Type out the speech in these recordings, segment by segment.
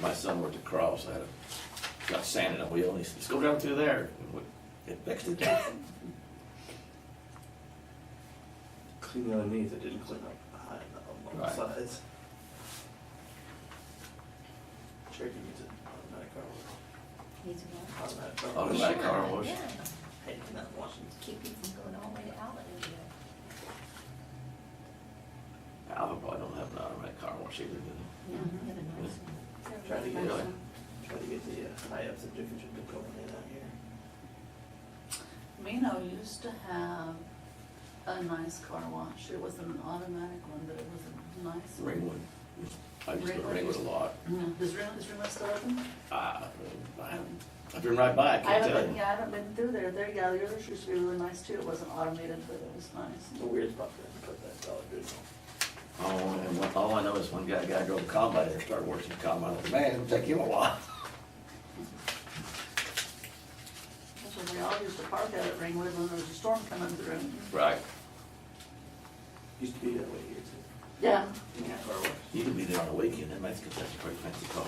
my son worked at Carl's, had a, got sand in a wheel, and he said, let's go down through there. And we- It fixed it. Clean the underneath, it didn't clean up behind on both Right. sides. Cherokee needs an automatic car wash, Needs a lot. automatic car wash. Automatic Oh, car wash. Yeah, Hating that Washington. keep it from going all the way to Allen. Alva probably don't have an automatic car wash either, do they? Yeah, they have a nice one. Try to get, Really? try to get the uh, high ups of Dickinson to go in down here. Mino used to have a nice car wash. It wasn't an automatic one, but it was a nice Mm-hmm. one. Ringwood. I used to go to Ringwood a lot. Yeah. Is Rim, is Rim still open? I, I, I've been right by, I I can't haven't tell been, you. yeah, I haven't been through there. There, yeah, the others used to be really nice too. It wasn't automated, but it was It's nice. a weird spot to put that dollar bill. Oh, and what- all I know is one guy, guy drove a combine there, started working the combine, I was like, man, it'll take you a while. That's when we all used to park out at Ringwood when there was a storm coming through. Right. Used to be that way here too. Yeah. Yeah, car wash. You could be there on a weekend, that makes Kentucky a pretty fancy car.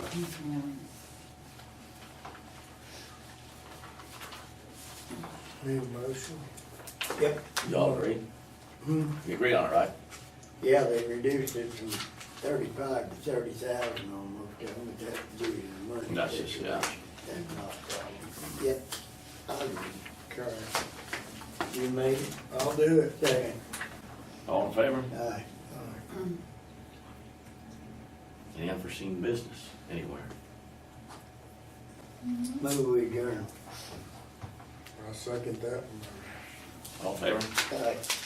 Need a motion? Yep, Hmm. Y'all agree? You agree on it, right? yeah, they reduced it from thirty-five to thirty thousand almost, but that's due to the money. That's just- yeah. That's not a problem. Yep, I'll do it. Correct. You made it? I'll do it. Second. All in favor? Aye. Any unforeseen business anywhere? Move we adjourn. I second that. one. All in favor? Aye.